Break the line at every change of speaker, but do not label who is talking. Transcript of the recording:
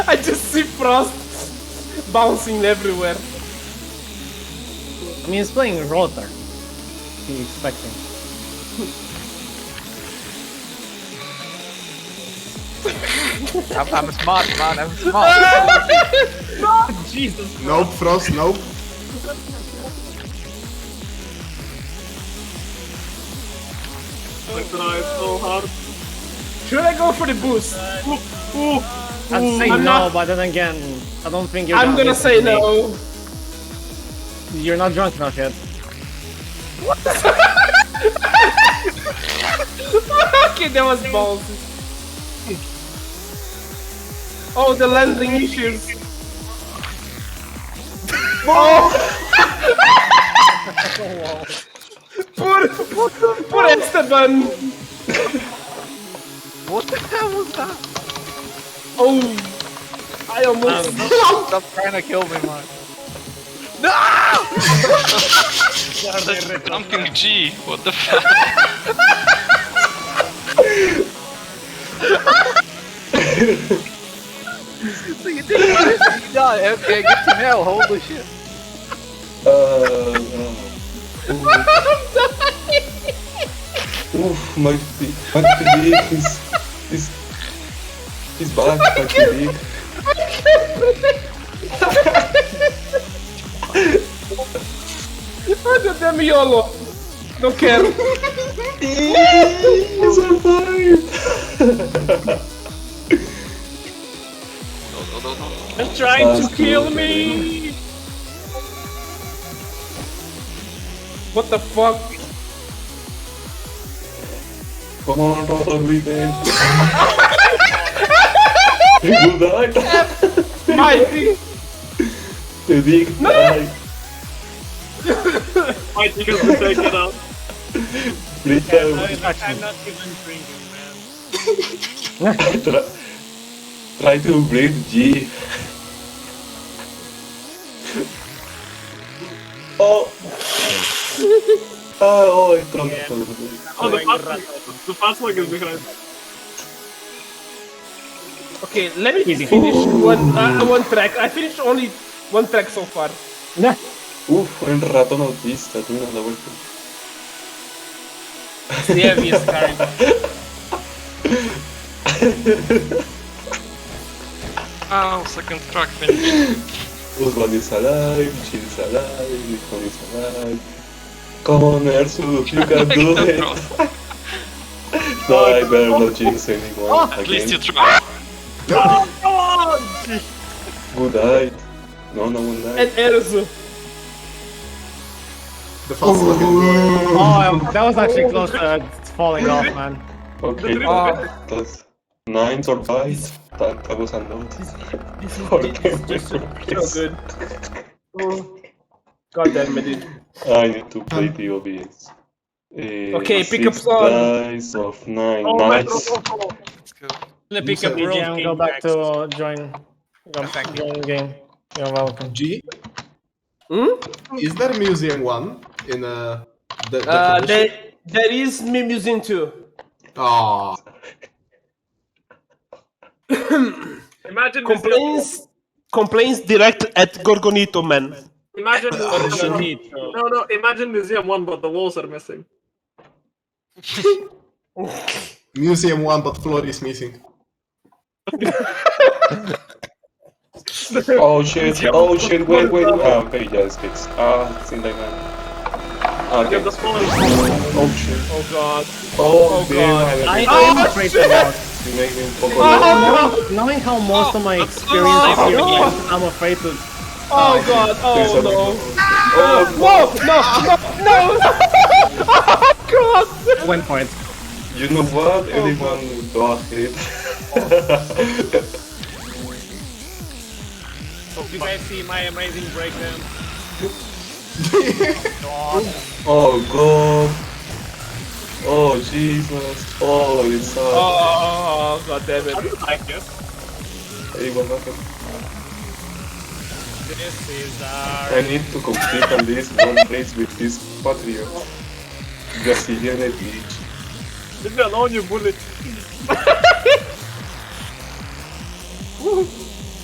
I just see frost bouncing everywhere.
I mean, it's playing Rotor. What are you expecting?
I'm, I'm smart, man. I'm smart.
Jesus.
Nope, Frost, nope.
I tried so hard.
Should I go for the boost?
I'd say
Ooh, Mm, I'm
no,
not-
but then again, I don't think you're.
I'm gonna
listen
say
to me.
no.
You're not drunk enough yet.
okay, that was ballsy. Oh, the landing issues. Oh! poor, poor Esteban.
what the hell was that?
Oh, I almost.
Stop trying to kill me, man.
Something G. What the fuck?
So you did it. You died. Okay, good to know. Holy shit.
Uh, Oof, my feet, my feet is, is, is back, my feet.
I did them YOLO. Don't care.
He's alive!
They're trying to
That's
kill
cool.
me. What the fuck?
Come on, roll every day. You died.
Mighty.
The dick died.
I think it's to take it out.
Please try,
I'm not
try to breathe G. Oh! Ah, oh, I thought it was-
Oh, the fast, the fast one is behind.
Okay, let me finish one uh, one track. I finished only one track so far.
Uf, el ratón autista, tiene la vuelta.
It's the heaviest kind.
Ow,
Oh,
second track finished.
Usman is alive, Jin is alive, Nikon is alive. Come on, Ersu, you can
Like
do
the
it.
frost.
No, I better not jinx
Ah,
anyone
At least you
again.
tried.
Good night. No, no, good night.
And Erzu.
The fast one is
Oh, um, that was actually close to uh, falling off, man.
Okay,
Ah.
that's nine survives. That, that was a lot. Okay, please.
good. Oh, God damn it. dude.
I need to play the OBS. Eh,
Okay, pick up
six
song.
dice of nine.
Oh, my
nice.
Let me
Pick up BGM, go back to uh, join. Go back join game. You're welcome.
G.
Hmm?
Is there museum one in uh, the, the
Uh,
tradition?
there, there is me using too.
Aw.
Imagine this-
Complaints. Complaints direct at Gorgonito, man.
Imagine
sure.
museum. No, no. Imagine museum one, but the walls are missing.
museum one, but floor is missing.
Oh shit, oh shit, wait, wait, wait. Ah, okay, yeah, it's fixed. Ah, think like that. Ah,
Look
okay.
at the floor.
Oh shit.
Oh god.
Oh, damn,
God.
I
I
am afraid about.
you make me fuck
Knowing, knowing how most of my experience here is, I'm afraid to.
Oh god.
There's
Oh
something
no.
Oh,
No, no, no, no! oh god!
Went for it.
You know what? Anyone got it.
You guys see my amazing breakdown.
oh god. Oh Jesus. Oh, it's sad.
Oh god damn it.
Thank you.
Hey, what happened?
This is uh, our.
I need to complete at least one race with this patriot. Brazilian elite.
Leave me alone, you bullet.